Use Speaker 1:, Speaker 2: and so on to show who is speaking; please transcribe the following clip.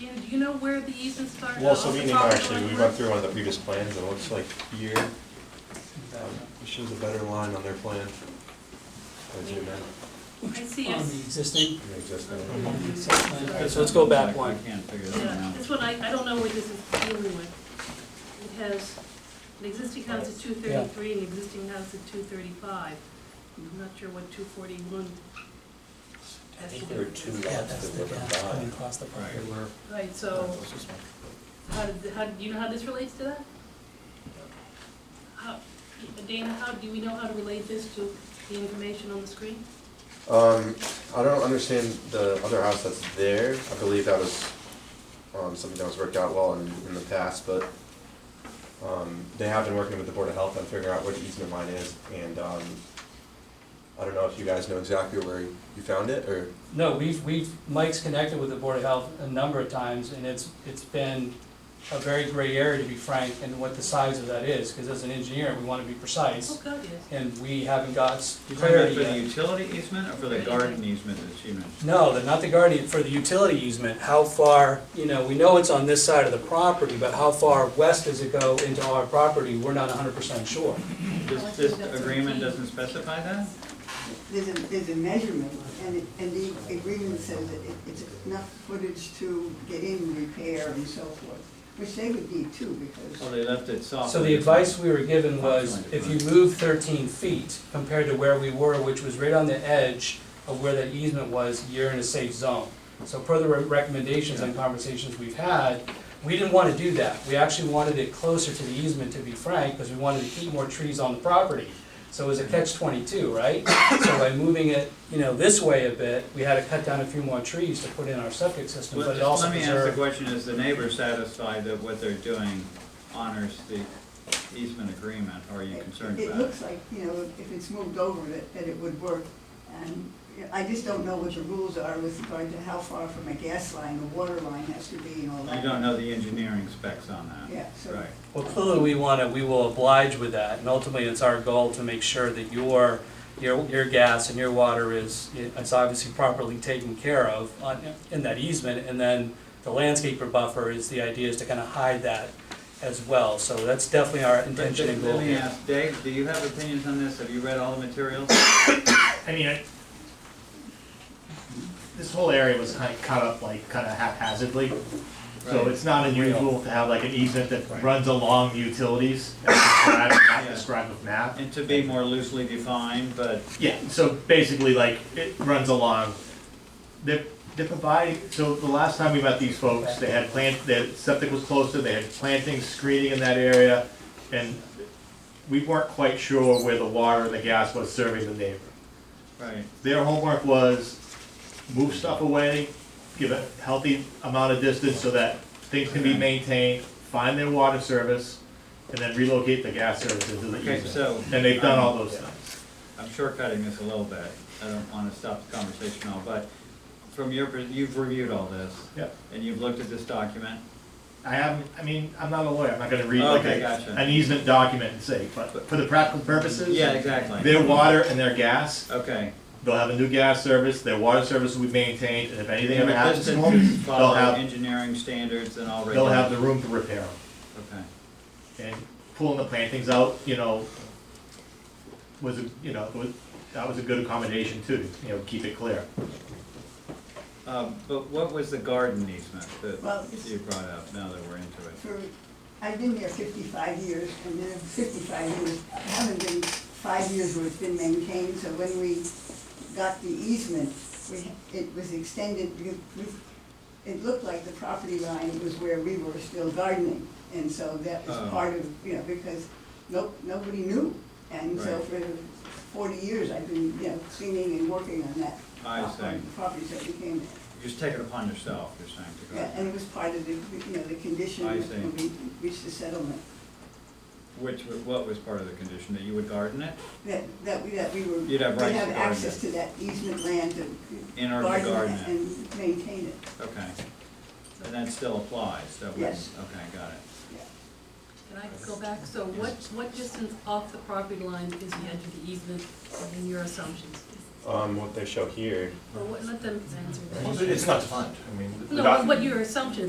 Speaker 1: Dan, do you know where the easement started?
Speaker 2: Well,
Speaker 1: off
Speaker 2: so
Speaker 1: the
Speaker 2: meaning,
Speaker 1: property
Speaker 2: actually, we
Speaker 1: line?
Speaker 2: went through one of the previous plans, and it looks like here, um, it shows a better line on their plan. As you know,
Speaker 1: I see, I
Speaker 3: On the
Speaker 1: see.
Speaker 3: existing,
Speaker 2: the existing.
Speaker 3: site plan. Okay, so let's go back
Speaker 4: I
Speaker 3: one.
Speaker 4: can't figure that one
Speaker 1: Yeah,
Speaker 4: out.
Speaker 1: this one, I, I don't know what this is dealing with. It has an existing house at two thirty-three and existing house at two thirty-five. I'm not sure what two forty-one
Speaker 2: I think there are two
Speaker 3: Yeah,
Speaker 2: lots
Speaker 3: that's
Speaker 2: that
Speaker 3: the
Speaker 2: were
Speaker 3: path coming
Speaker 2: combined.
Speaker 3: across the property.
Speaker 1: Right, so how did, how, do you know how this relates to that? How, Dana, how, do we know how to relate this to the information on the screen?
Speaker 2: Um, I don't understand the other house that's there, I believe that was, um, something that was worked out well in, in the past, but, um, they have been working with the Board of Health on figuring out what the easement line is, and, um, I don't know if you guys know exactly where you found it, or?
Speaker 5: No, we've, we've, Mike's connected with the Board of Health a number of times, and it's, it's been a very gray area, to be frank, in what the size of that is, because as an engineer, we want to be
Speaker 1: Oh,
Speaker 5: precise,
Speaker 1: God, yes.
Speaker 5: and we haven't got
Speaker 4: You talking about
Speaker 5: clarity
Speaker 4: for the
Speaker 5: yet.
Speaker 4: utility easement or for the garden easement that she mentioned?
Speaker 3: No, the- not the guardian, for the utility easement, how far, you know, we know it's on this side of the property, but how far west does it go into our property, we're not hundred percent sure.
Speaker 4: This, this agreement doesn't specify that?
Speaker 6: There's a, there's a measurement, and, it- and the agreement says that it- it's enough footage to get in, repair, and so forth, which they would need too,
Speaker 4: Or
Speaker 6: because,
Speaker 4: Oh, they left it soft?
Speaker 5: So the advice we were given was, if you move thirteen feet compared to where we were, which was right on the edge of where that easement was, you're in a safe zone. So per the re- recommendations and conversations we've had, we didn't wanna do that. We actually wanted it closer to the easement, to be frank, because we wanted to keep more trees on the property. So it was a catch twenty-two, right? So by moving it, you know, this way a bit, we had to cut down a few more trees to put in our septic system, but it
Speaker 4: Let
Speaker 5: also
Speaker 4: let me ask the
Speaker 5: preserved.
Speaker 4: question, is the neighbor satisfied that what they're doing honors the easement agreement? Or are you
Speaker 6: it-
Speaker 4: concerned
Speaker 6: it
Speaker 4: about it?
Speaker 6: looks like, you know, if it's moved over, that, that it would work. And you know, I just don't know what the rules are with regard to how far from a gas line, a water line has to be and all that.
Speaker 4: You don't know the engineering specs on that?
Speaker 6: Yeah, so-
Speaker 4: Right.
Speaker 5: Well, clearly, we want to, we will oblige with that, and ultimately, it's our goal to make sure that your, your, your gas and your water is, is obviously properly taken care of on, in that easement, and then the landscaper buffer is, the idea is to kind of hide that as well, so that's definitely our
Speaker 4: But
Speaker 5: intention and
Speaker 4: th-
Speaker 5: goal.
Speaker 4: Let me ask, Dave, do you have opinions on this? Have you read all the materials?
Speaker 7: I mean, I, this whole area was kind of cut up like kind of haphazardly. So
Speaker 4: Right.
Speaker 7: it's not unusual to have like an easement that runs along the utilities, as described,
Speaker 4: Yeah.
Speaker 7: not described with map.
Speaker 4: And to be more loosely defined, but
Speaker 7: Yeah, so basically like it runs along, they're, they're providing, so the last time we met these folks, they had plant, their septic was closer, they had planting, screening in that area. And we weren't quite sure where the water and the gas was serving the neighbor.
Speaker 4: Right,
Speaker 7: their homework was move stuff away, give a healthy amount of distance so that things can be maintained, find their water service, and then relocate the gas service into the
Speaker 4: Okay, so-
Speaker 7: easement. And they've done all those things.
Speaker 4: I'm shortcutting this a little bit, I don't wanna stop the conversation all, but from your, per- you've reviewed all this,
Speaker 7: Yep.
Speaker 4: and you've looked at this document,
Speaker 7: I haven't, I mean, I'm not a lawyer, I'm not gonna read like
Speaker 4: Okay,
Speaker 7: a-
Speaker 4: gotcha.
Speaker 7: an easement document and say, but for the practical purposes.
Speaker 4: Yeah, exactly.
Speaker 7: Their water and their gas,
Speaker 4: okay.
Speaker 7: they'll have a new gas service, their water service will be maintained, and if anything ever happens to
Speaker 4: Distance is
Speaker 7: them, they'll
Speaker 4: Following
Speaker 7: have,
Speaker 4: engineering standards and all
Speaker 7: they'll have
Speaker 4: regulations.
Speaker 7: the room to repair them.
Speaker 4: Okay,
Speaker 7: and pulling the plantings out, you know, was, a you know, was, that was a good accommodation too, you know, keep it clear.
Speaker 4: um, but what was the garden easement
Speaker 6: Well,
Speaker 4: that
Speaker 6: it's-
Speaker 4: you brought up, now that we're into it?
Speaker 6: for, I've been there fifty-five years, and then fifty-five years, I haven't been five years where it's been maintained, so when we got the easement, we, it was extended, because we- it looked like the property line was where we were still gardening, and so that was
Speaker 4: Oh.
Speaker 6: part of, you know, because no, nobody knew. And so
Speaker 4: Right.
Speaker 6: for forty years, I've been, you know, cleaning and working on that.
Speaker 4: I
Speaker 6: on
Speaker 4: see.
Speaker 6: The properties that became there.
Speaker 4: You Just take it upon yourself, you're saying to
Speaker 6: Yeah,
Speaker 4: garden,
Speaker 6: and it was part of the, you know, the condition
Speaker 4: I see.
Speaker 6: when we reached the settlement,
Speaker 4: which, wa- what was part of the condition, that you would garden it
Speaker 6: that, that we, that we were.
Speaker 4: You'd have rights to
Speaker 6: We'd have
Speaker 4: garden
Speaker 6: access
Speaker 4: it.
Speaker 6: to that easement land to.
Speaker 4: in order to garden
Speaker 6: it
Speaker 4: it?
Speaker 6: And maintain it,
Speaker 4: Okay, and that still applies, that was,
Speaker 6: Yes.
Speaker 4: okay, got it.
Speaker 6: yeah.
Speaker 1: Can I go back? So what, what distance off the property line is the edge of the easement in your assumptions?
Speaker 2: Um, what they show here
Speaker 1: Or what, let them answer that.
Speaker 8: Well, It's not defined, I mean. the
Speaker 1: No,
Speaker 8: document-
Speaker 1: what your assumptions